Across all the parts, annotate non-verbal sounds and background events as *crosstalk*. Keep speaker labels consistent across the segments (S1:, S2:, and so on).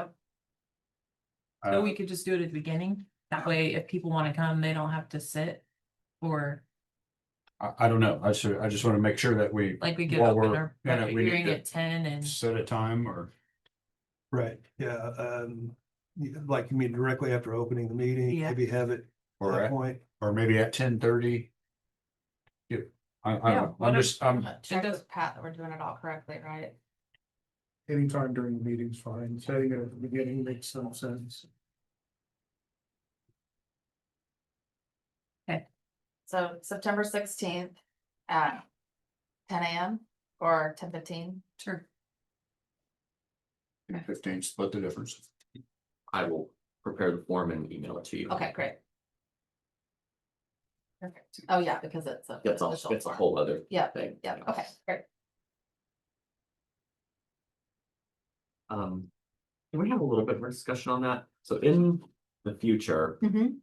S1: Uh,
S2: So we could just do it at the beginning, that way if people wanna come, they don't have to sit. Or
S3: I, I don't know. I should, I just want to make sure that we
S2: like we could
S3: Well,
S2: open
S3: we're-
S2: our
S3: yeah,
S2: public
S3: we need
S2: hearing
S3: to-
S2: at ten and,
S3: set a time or,
S4: Right, yeah, um, you- like you mean directly after opening the meeting,
S2: Yeah.
S4: maybe have it at
S3: or,
S4: that
S3: at-
S4: point.
S3: or maybe at ten thirty. Yeah, I, I
S2: Yeah,
S3: don't know. I'm
S2: whatever.
S3: just, I'm,
S5: Check
S2: does-
S5: with Pat that we're doing it all correctly, right?
S6: Anytime during the meeting's fine, setting it at the beginning makes some sense.
S5: So September sixteenth at ten AM or ten fifteen.
S2: sure,
S3: fifteen, split the difference.
S1: I will prepare the form and email it to you.
S5: Okay, great. Perfect. Oh, yeah, because it's a.
S1: That's all,
S5: official
S1: that's a
S5: form.
S1: whole other
S5: Yeah,
S1: thing.
S5: yeah, okay, great.
S1: Um, can we have a little bit more discussion on that? So in the future,
S5: Mhm,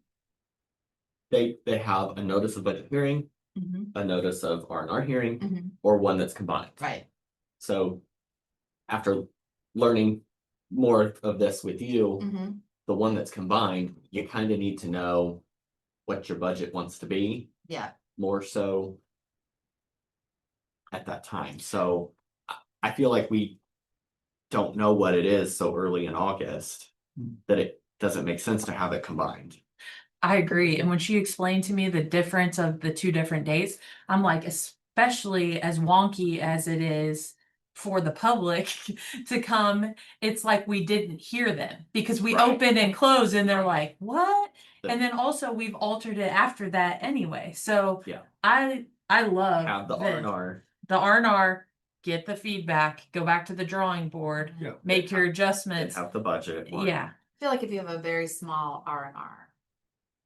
S1: they, they have a notice of budget hearing,
S5: mhm,
S1: a notice of R and R hearing,
S5: mhm,
S1: or one that's combined.
S5: Right,
S1: So after learning more of this with you,
S5: mhm,
S1: the one that's combined, you kind of need to know what your budget wants to be.
S5: yeah,
S1: more so at that time, so I, I feel like we don't know what it is so early in August
S2: Hmm.
S1: that it doesn't make sense to have it combined.
S2: I agree, and when she explained to me the difference of the two different dates, I'm like, especially as wonky as it is. For the public *laughs* to come, it's like we didn't hear them, because we
S1: Right.
S2: open and close and they're like, what?
S1: But-
S2: And then also, we've altered it after that anyway, so.
S1: Yeah.
S2: I, I love.
S1: Have the R
S2: this.
S1: and R,
S2: the R and R, get the feedback, go back to the drawing board,
S4: Yeah.
S2: make your
S1: and
S2: adjustments.
S1: have the budget. one.
S2: Yeah,
S5: I feel like if you have a very small R and R.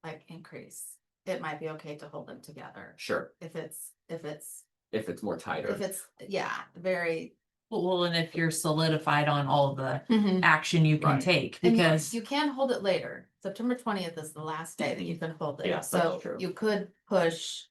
S5: Like increase, it might be okay to hold them together,
S1: Sure,
S5: if it's, if it's,
S1: if it's more
S5: if
S1: tighter,
S5: it's, yeah, very.
S2: well, and if you're solidified on all the
S1: Mm-hmm.
S5: Mhm.
S2: action you can
S1: Right.
S2: take,
S5: And you-
S2: because
S5: You can hold it later. September twentieth is the last day that you can hold
S1: Yeah,
S5: it,
S1: that's
S5: so
S1: true.
S5: you could push.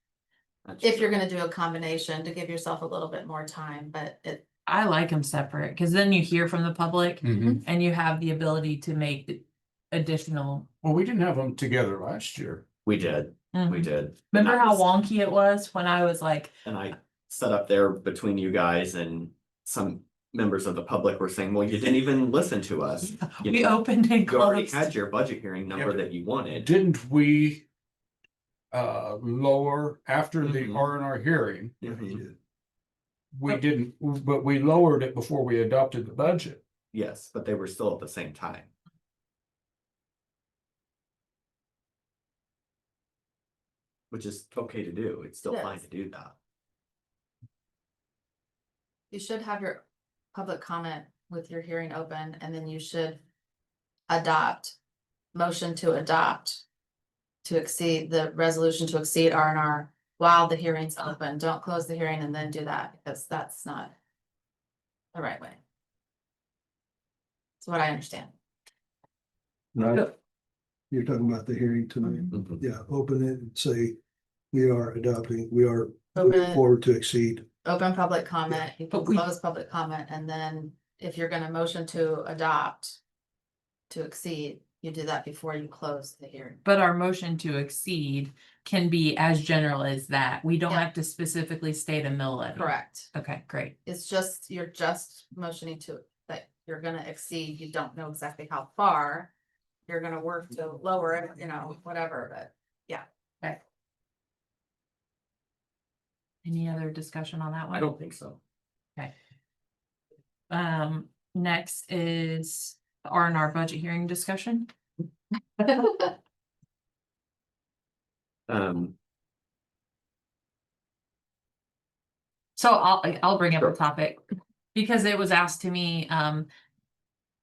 S1: That's
S5: If
S1: true.
S5: you're gonna do a combination to give yourself a little bit more time, but it,
S2: I like them separate, because then you hear from the public
S1: Mm.
S3: Mhm.
S2: and you have the ability to make additional.
S3: Well, we didn't have them together last year.
S1: we did, we
S2: Mhm.
S1: did. and
S2: Remember
S1: I
S2: how
S1: was-
S2: wonky it was when I was like,
S1: And I set up there between you guys and some members of the public were saying, well, you didn't even listen to
S2: *laughs*
S1: us. You
S2: we
S1: know,
S2: opened and
S1: You already
S2: closed.
S1: had your budget hearing number
S3: but-
S1: that you wanted.
S3: Didn't we? Uh, lower after the
S1: Mhm.
S3: R and R hearing,
S1: Mhm.
S3: we
S2: Yep.
S3: didn't, but we lowered it before we adopted the budget.
S1: Yes, but they were still at the same time. Which is okay to do. It's still fine
S5: Yes.
S1: to do that.
S5: you should have your public comment with your hearing open, and then you should. Adopt, motion to adopt. To exceed the resolution to exceed R and R while the hearing's open. Don't close the hearing and then do that, because that's not. The right way. That's what I understand.
S4: Right. You're talking about the hearing tonight,
S2: Mhm.
S5: Mm-hmm.
S1: Mhm.
S4: yeah, open it and say, we are adopting, we are
S5: Open
S4: moving
S5: it.
S4: forward to exceed.
S5: open public comment, you can
S2: But we-
S5: close public comment, and then if you're gonna motion to adopt. To exceed, you do that before you close the hearing.
S2: But our motion to exceed can be as general as that. We don't
S5: Yeah.
S2: have to specifically state a mill levy.
S5: Correct.
S2: Okay, great.
S5: It's just, you're just motioning to, that you're gonna exceed, you don't know exactly how far. You're gonna work to lower it, you know, whatever, but
S2: Any other discussion on that one?
S1: I don't think so.
S2: Um, next is the R and R budget hearing discussion.
S5: *laughs*
S1: Um,
S2: So I'll, I'll bring up the
S1: Sure.
S2: topic because it was asked to me, um.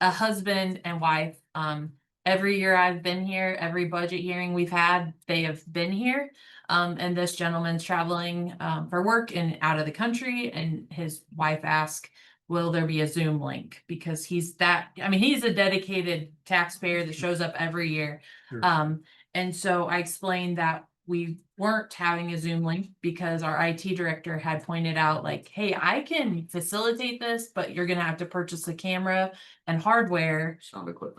S2: A husband and wife, um, every year I've been here, every budget hearing we've had, they have been here. Um, and this gentleman's traveling, um, for work and out of the country and his wife asked, will there be a Zoom link? Because he's that, I mean, he's a dedicated taxpayer that shows up every year.
S4: Sure.
S2: Um, and so I explained that we weren't having a Zoom link because our IT director had pointed out like, hey, I can facilitate this, but you're gonna have to purchase a camera and hardware
S1: sound equipment.